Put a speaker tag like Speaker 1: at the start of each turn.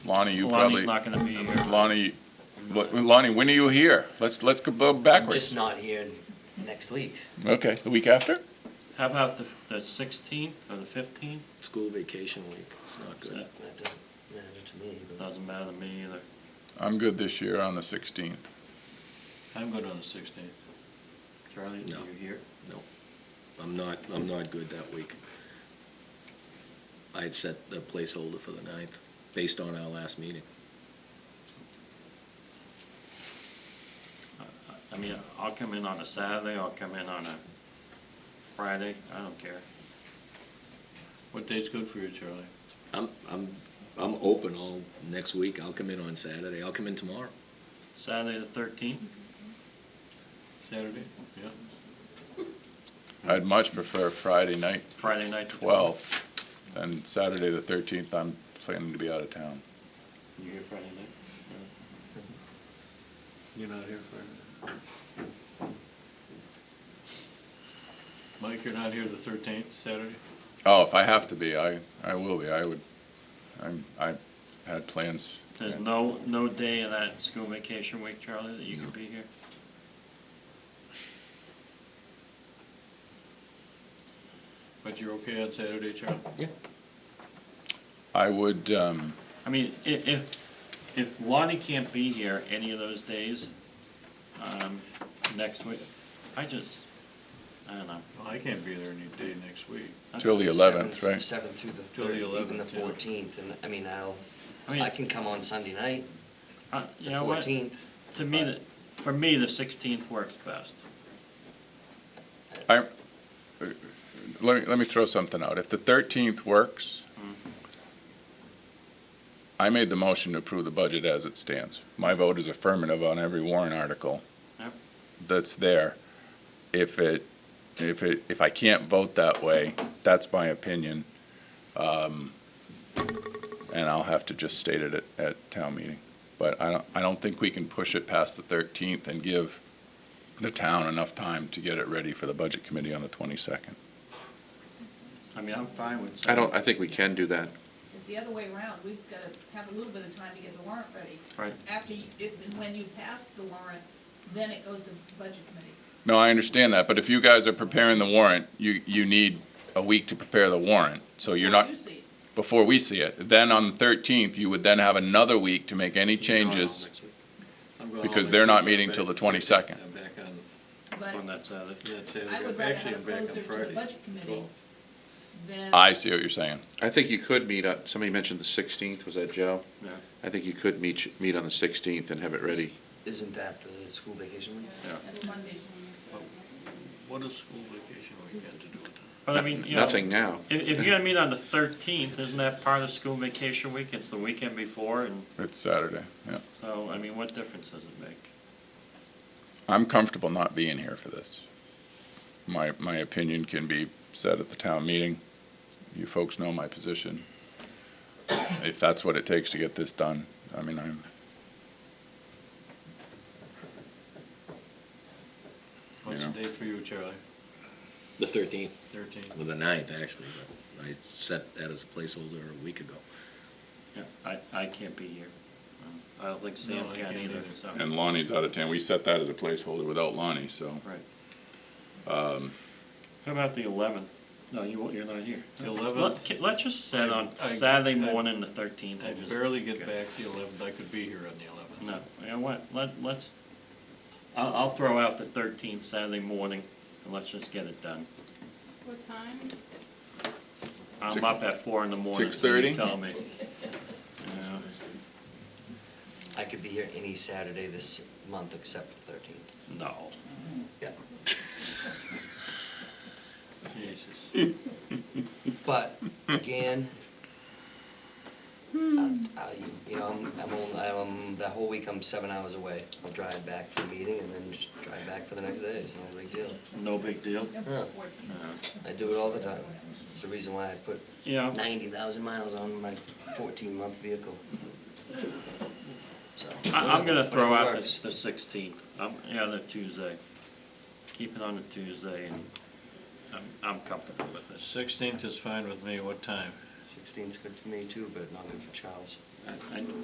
Speaker 1: Lonnie, you
Speaker 2: Lonnie's
Speaker 1: probably,
Speaker 2: not gonna be here.
Speaker 1: Lonnie, what- Lonnie, when are you here? Let's, let's go
Speaker 3: I'm just
Speaker 1: backwards.
Speaker 3: not here next week.
Speaker 1: Okay, the week after?
Speaker 2: How about the, the sixteenth or the fifteenth?
Speaker 4: School vacation week, it's not good.
Speaker 3: That doesn't matter to me, but
Speaker 2: Doesn't matter to me either.
Speaker 1: I'm good this year on the 16th.
Speaker 2: I'm good on the sixteenth. Charlie,
Speaker 4: No.
Speaker 2: you here?
Speaker 4: I'm not, I'm not good that week. I had set a placeholder for the ninth, based on our last meeting.
Speaker 2: I mean, I'll come in on a Saturday, I'll come in on a Friday, I don't care. What day's good for you, Charlie?
Speaker 4: I'm, I'm, I'm open all next week, I'll come in on Saturday, I'll come in tomorrow.
Speaker 2: Saturday the thirteenth? Saturday, yeah.
Speaker 1: I'd much prefer Friday night,
Speaker 2: Friday night the 12th.
Speaker 1: 12th, than Saturday, the 13th. I'm planning to be out of town.
Speaker 2: You here Friday night? You're not here Friday? Mike, you're not here the thirteenth, Saturday?
Speaker 1: Oh, if I have to be, I, I will be. I would, I'm, I had plans.
Speaker 2: There's no, no day of that school vacation week, Charlie, that you could be here?
Speaker 5: But you're okay on Saturday, Charlie?
Speaker 1: I would, um,
Speaker 2: I mean, i- if, if Lonnie can't be here any of those days, um, next week, I just, I don't know.
Speaker 5: Well, I can't be there any day next week.
Speaker 1: till the 11th,
Speaker 3: seventh-
Speaker 1: right?
Speaker 3: Seventh through the
Speaker 5: Till the
Speaker 3: third, even the
Speaker 5: 11th, yeah.
Speaker 3: fourteenth, and, I mean, I'll,
Speaker 2: I mean,
Speaker 3: I can come on Sunday night,
Speaker 2: I- Uh, you
Speaker 3: the
Speaker 2: know what, to
Speaker 3: fourteenth.
Speaker 2: me, the- for me, the sixteenth works best.
Speaker 1: I, let me, let me throw something out. If the 13th works, I made the motion to approve the budget as it stands. My vote is affirmative on every warrant article
Speaker 2: Yep.
Speaker 1: that's there. If it, if it, if I can't vote that way, that's my opinion. Um, And I'll have to just state it at, at town meeting. But I don't, I don't think we can push it past the 13th and give the town enough time to get it ready for the budget committee on the 22nd.
Speaker 2: I mean, I'm fine with.
Speaker 6: I don't, I think we can do that.
Speaker 7: It's the other way around. We've got to have a little bit of time to get the warrant ready.
Speaker 2: Right.
Speaker 7: After, you- if, and when you pass the warrant, then it goes to budget committee.
Speaker 1: No, I understand that, but if you guys are preparing the warrant, you, you need a week to prepare the warrant. So you're not,
Speaker 7: You see it.
Speaker 1: before we see it. Then on the 13th, you would then have another week to make any changes. Because they're not meeting till the 22nd.
Speaker 5: I'm back on,
Speaker 7: But
Speaker 2: On that Saturday.
Speaker 5: yeah, Saturday.
Speaker 7: I would rather
Speaker 5: Actually, I'm
Speaker 7: have it
Speaker 5: back on
Speaker 7: closer to the
Speaker 5: Friday,
Speaker 7: budget committee
Speaker 5: 12th.
Speaker 7: than.
Speaker 1: I see what you're saying.
Speaker 6: I think you could meet, on- somebody mentioned the 16th, was that Joe?
Speaker 2: Yeah,
Speaker 6: I think you could meet, meet on the 16th and have it ready.
Speaker 3: Isn't that the school vacation week?
Speaker 2: yeah.
Speaker 7: That's Monday.
Speaker 5: What does school vacation weekend to do with that?
Speaker 2: But I mean, you know,
Speaker 6: Nothing now.
Speaker 2: if, if you're gonna meet on the thirteenth, isn't that part of the school vacation week? It's the weekend before, and
Speaker 1: It's Saturday, yeah.
Speaker 2: so, I mean, what difference does it make?
Speaker 1: I'm comfortable not being here for this. My, my opinion can be said at the town meeting. You folks know my position. If that's what it takes to get this done, I mean, I'm,
Speaker 5: What's
Speaker 1: Yeah.
Speaker 5: the date for you, Charlie?
Speaker 4: The thirteenth,
Speaker 5: Thirteenth?
Speaker 4: or the ninth, actually, but I set that as a placeholder a week ago.
Speaker 2: Yeah, I, I can't be here. I don't think Sam
Speaker 5: No, I
Speaker 2: can
Speaker 5: can't
Speaker 2: either,
Speaker 5: either.
Speaker 2: so.
Speaker 1: and Lonnie's out of town. We set that as a placeholder without Lonnie, so.
Speaker 2: Right. How about the eleventh? No, you, won't- you're not here.
Speaker 5: The 11th?
Speaker 2: Let- Let's just set on
Speaker 5: I- I-
Speaker 2: Saturday
Speaker 5: I-
Speaker 2: morning, the thirteenth.
Speaker 5: I barely get back the eleventh, I could be here on the eleventh.
Speaker 2: No, you know what, let, let's, I'll, I'll throw out the thirteenth Saturday morning, and let's just get it done.
Speaker 7: What time?
Speaker 2: I'm
Speaker 1: Six-
Speaker 2: up at four in the morning. so you
Speaker 1: 6:30?
Speaker 2: Tell me. Yeah.
Speaker 3: I could be here any Saturday this month except the thirteenth.
Speaker 2: No.
Speaker 3: Yeah.
Speaker 2: Jesus.
Speaker 3: But again, I- I- you know, I'm, I'm, only- I'm, the whole week I'm seven hours away. I'll drive back for a meeting and then just drive back for the next day. It's not a big deal.
Speaker 2: No big deal.
Speaker 7: November fourteenth.
Speaker 2: Yeah.
Speaker 3: I do it all the time. It's the reason why I put
Speaker 2: Yeah.
Speaker 3: ninety thousand miles on my fourteen-month vehicle. So,
Speaker 2: I, I'm gonna throw
Speaker 3: whatever
Speaker 2: out
Speaker 3: works.
Speaker 2: the, the sixteenth, um, yeah, the Tuesday. Keep it on the Tuesday, and I'm, I'm comfortable with it.
Speaker 5: Sixteenth is fine with me, what time?
Speaker 3: Sixteen's good for me too, but not good for Charles.
Speaker 2: I- I-